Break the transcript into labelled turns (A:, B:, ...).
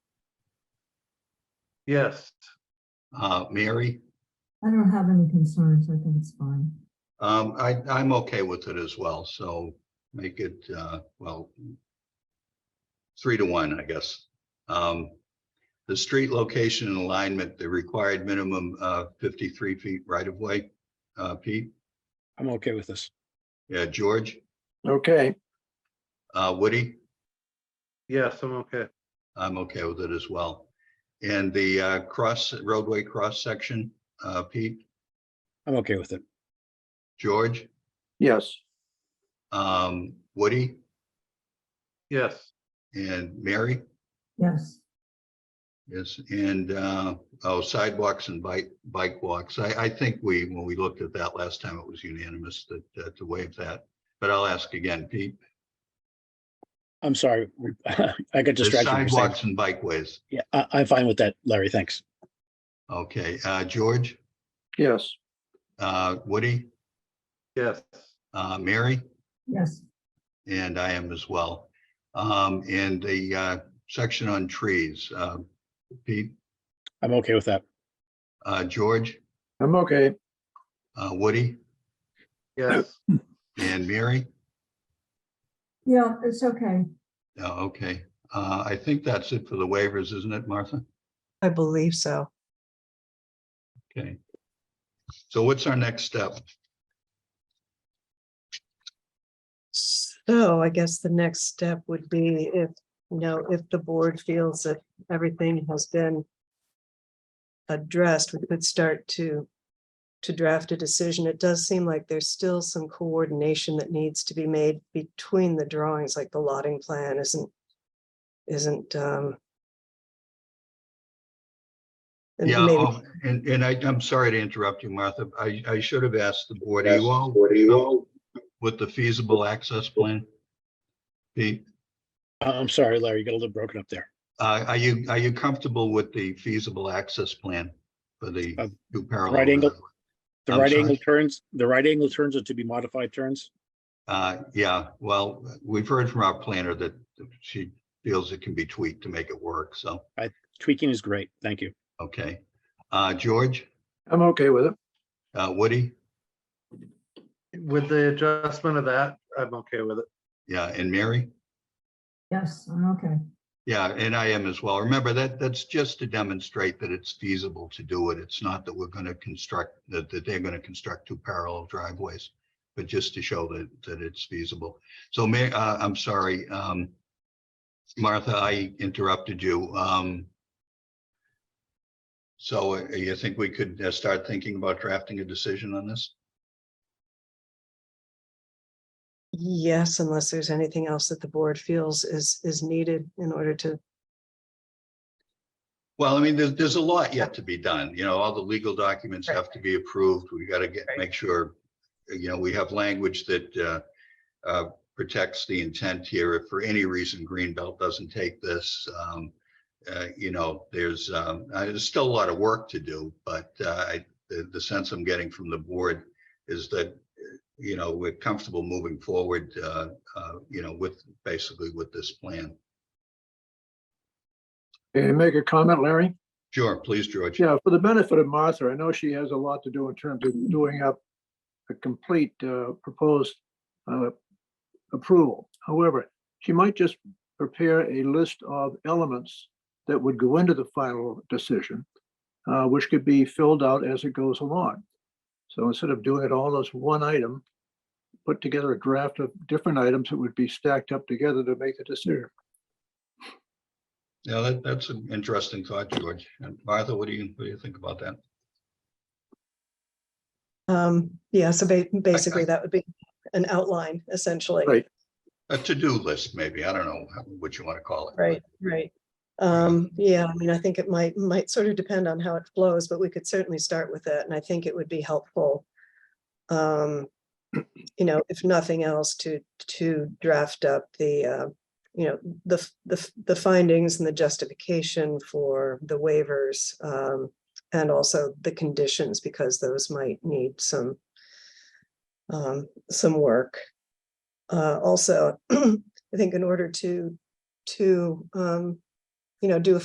A: Yes.
B: Uh, Mary,
C: I don't have any concerns. I think it's fine.
B: um, I, I'm okay with it as well, so make it, uh, well, three to one, I guess. Um, the street location and alignment, the required minimum, uh, fifty-three feet right of way. Uh, Pete,
D: I'm okay with this.
B: yeah, George,
E: Okay,
B: uh, Woody?
A: Yes, I'm okay.
B: I'm okay with it as well. And the uh, cross roadway cross section, uh, Pete,
D: I'm okay with it.
B: George,
E: yes,
B: um, Woody
A: Yes.
B: and Mary.
C: Yes,
B: Yes, and uh, oh, sidewalks and bike, bike walks. I, I think we, when we looked at that last time, it was unanimous that, uh, to waive that. But I'll ask again, Pete.
D: I'm sorry. I got
B: The
D: distracted. when you were saying-
B: Sidewalks and bikeways.
D: Yeah, I, I'm fine with that, Larry. Thanks.
B: Okay, uh, George,
E: yes,
B: uh, Woody,
A: Yes.
B: uh, Mary?
C: yes,
B: And I am as well. Um, and the, uh, section on trees, uh, Pete,
D: I'm okay with that.
B: uh, George,
E: I'm okay,
B: uh, Woody
A: Yes.
B: and Mary.
C: yeah, it's okay.
B: Oh, okay. Uh, I think that's it for the waivers, isn't it, Martha?
F: I believe so.
B: Okay. So what's our next step?
F: So I guess the next step would be if, you know, if the board feels that everything has been addressed, we could start to to draft a decision. It does seem like there's still some coordination that needs to be made between the drawings, like the lotting plan isn't isn't um and
B: Yeah,
F: maybe-
B: oh, and, and I, I'm sorry to interrupt you, Martha. I, I should have asked the board, are you all, are you all with the feasible access plan? Pete?
D: I- I'm sorry, Larry. You got a little broken up there.
B: Uh, are you, are you comfortable with the feasible access plan for the
D: Uh,
B: two parallel?
D: right angle-
B: roadways?
D: The
B: I'm
D: right
B: sorry.
D: angle turns, the right angle turns are to be modified turns.
B: Uh, yeah, well, we've heard from our planner that she feels it can be tweaked to make it work, so,
D: Tweaking is great. Thank you.
B: okay. Uh, George,
E: I'm okay with it,
B: uh, Woody,
A: With the adjustment of that, I'm okay with it.
B: yeah, and Mary?
C: Yes, I'm okay.
B: Yeah, and I am as well. Remember that, that's just to demonstrate that it's feasible to do it. It's not that we're gonna construct, that, that they're gonna construct two parallel driveways. But just to show that, that it's feasible. So may, uh, I'm sorry, um. Martha, I interrupted you, um. So uh, you think we could uh, start thinking about drafting a decision on this?
F: Yes, unless there's anything else that the board feels is is needed in order to
B: Well, I mean, there's, there's a lot yet to be done, you know, all the legal documents have to be approved, we gotta get, make sure, you know, we have language that uh, uh, protects the intent here, if for any reason Greenbelt doesn't take this, um, uh, you know, there's, um, uh, there's still a lot of work to do, but uh, I, the, the sense I'm getting from the board is that, uh, you know, we're comfortable moving forward, uh, uh, you know, with, basically with this plan.
E: Can I make a comment, Larry?
B: Sure, please, George.
E: Yeah, for the benefit of Martha, I know she has a lot to do in terms of doing up a complete uh, proposed uh, approval. However, she might just prepare a list of elements that would go into the final decision, uh, which could be filled out as it goes along. So instead of doing it all as one item, put together a draft of different items that would be stacked up together to make the decision.
B: Yeah, that, that's an interesting thought, George. And Martha, what do you, what do you think about that?
F: Um, yeah, so ba- basically that would be an outline essentially.
E: Right.
B: A to-do list, maybe. I don't know how- what you want to call it. but-
F: Right, right. Um, yeah, I mean, I think it might, might sort of depend on how it flows, but we could certainly start with that and I think it would be helpful. Um, you know, if nothing else to, to draft up the, uh, you know, the, f- the, f- the findings and the justification for the waivers. Um, and also the conditions because those might need some, um, some work. Uh, also, I think in order to to, um, you know, do a